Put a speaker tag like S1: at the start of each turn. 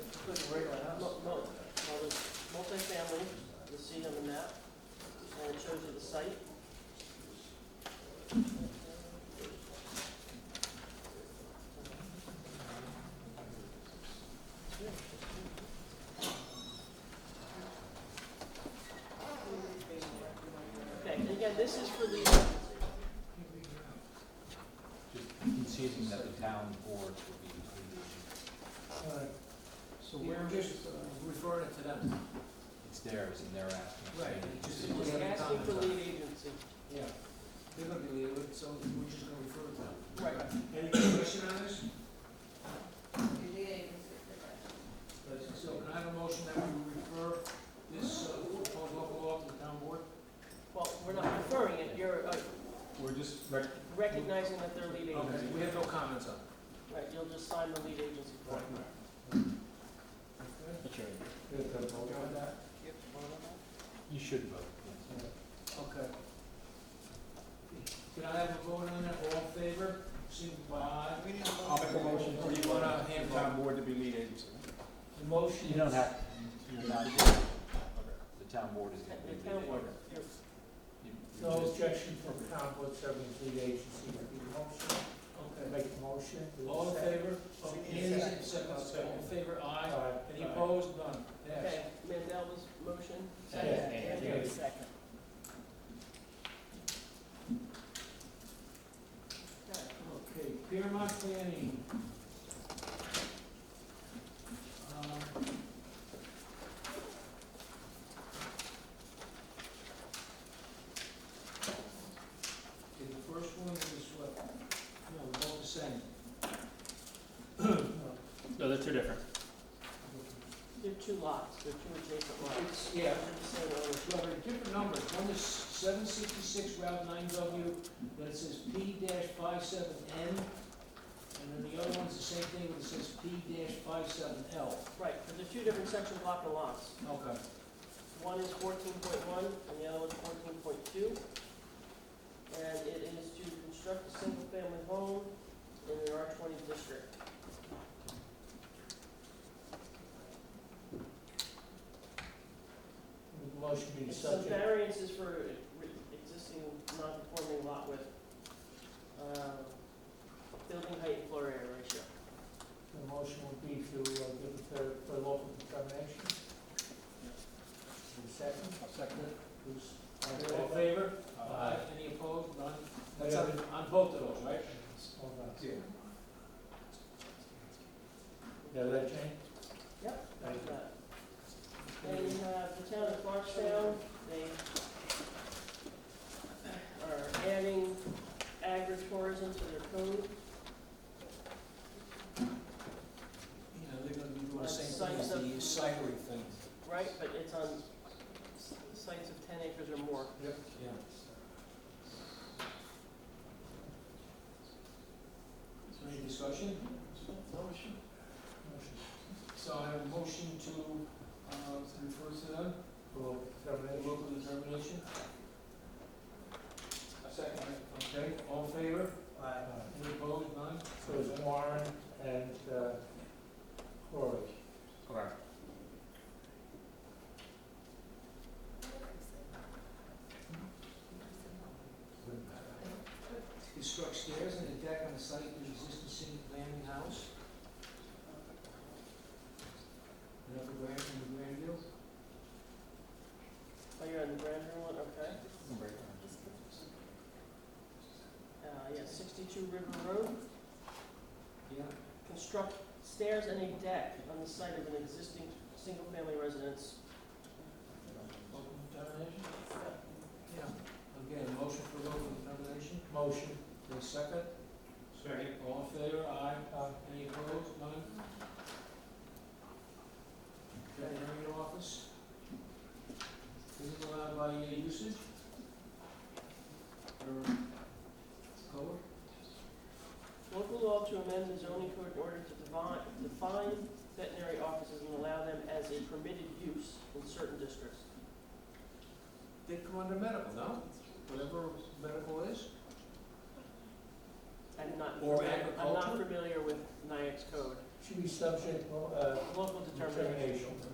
S1: you'll see on the map, and it shows you the site. Okay, and again, this is for the,
S2: Just conceding that the town boards would be between,
S3: So we're just referring it to them.
S2: it's theirs and they're asking. for
S3: Right,
S2: any
S3: it just-
S2: decision.
S1: just asking for lead agency.
S3: Yeah. They're gonna be leaving, so we're just gonna refer it to them.
S1: Right.
S3: Any question on this?
S4: Second.
S3: So can I have a motion that we refer this uh, proposed local law to the town board?
S1: Well, we're not referring it, you're uh,
S2: We're just rec-
S1: recognizing that they're lead
S3: Okay,
S1: agency.
S3: we have no comments on it.
S1: Right, you'll just sign the lead agency form.
S3: Okay.
S2: you should vote. yes.
S3: Okay. Can I have a vote on that, all in favor, signify.
S5: I'll make a motion
S3: Or
S5: to,
S3: you want a hand
S5: the
S3: vote?
S5: town board to be lead agency.
S3: The motion.
S2: You don't
S3: is-
S2: have, you're not, the town board is gonna be.
S1: The town board, you're-
S2: You- you
S3: No
S2: just-
S3: objection from town board serving lead agency, Okay. Make a motion. All in favor? Oh, Andy, second, all in favor, aye. Any opposed? None. Yes.
S1: Okay, Mandel was motion,
S3: Second.
S1: second, Andrew was second.
S3: Okay, Piermont Planning. Um, Okay, the first one is what, no, they're all the same. Uh, No.
S5: No, they're two different.
S1: They're two lots, they're two adjacent lots.
S3: It's, yeah,
S1: They're the same owner.
S3: Well, they're different numbers, one is seven sixty-six Route nine W, but it says P 57 N. And then the other one's the same thing, but it says P 57 L.
S1: Right, but they're two different section block of lots.
S3: Okay.
S1: One is fourteen point one and the other one's fourteen point two. And it is to construct a single-family home in an R twenty district.
S3: Motion being
S1: Some
S3: subject.
S1: variances for re- existing non-conforming lot with, uh, building height and floor area ratio.
S3: The motion would be to uh, give it the, the local determination. Who's second? Second. Who's, all in favor? Aye. Any opposed? None? That's on, on both of those, right?
S5: Yeah.
S3: Yeah, that change?
S1: Yep.
S3: Thank you.
S1: Uh, And uh, the town of Clarkstown, they are adding agritourism to their code.
S3: You know, they're gonna be doing the same thing
S1: Sites
S3: as the
S1: of-
S3: cyclery thing.
S1: Right, but it's on s- sites of ten acres or more.
S3: Yep. Yeah. Is there any discussion? Motion. Motion. So I have a motion to, uh, to refer to them? Local determination. Local determination. A second. Okay, all in favor? Aye. Any opposed, none? So it's Warren and, uh, Corey.
S2: Correct.
S3: Construct stairs and a deck on the site of the existing single landing house. Another grand, in Grandview.
S1: Oh, you're on the grander one, okay. Uh, yeah, sixty-two River Road,
S3: Yeah.
S1: construct stairs and a deck on the site of an existing single-family residence.
S3: Local determination? Yeah. Again, motion for local determination? Motion. The second? Second. All in favor, aye. Uh, Any opposed, none? Veterinary office? Is it allowed by uh, usage? Or code?
S1: Local law to amend the zoning code in order to divine, define veterinary offices and allow them as a permitted use in certain districts.
S3: They come under medical, no? Whatever medical is?
S1: I'm not,
S3: Or
S1: I'm not
S3: agriculture?
S1: familiar with NIAX code.
S3: Should be subject, uh,
S1: Local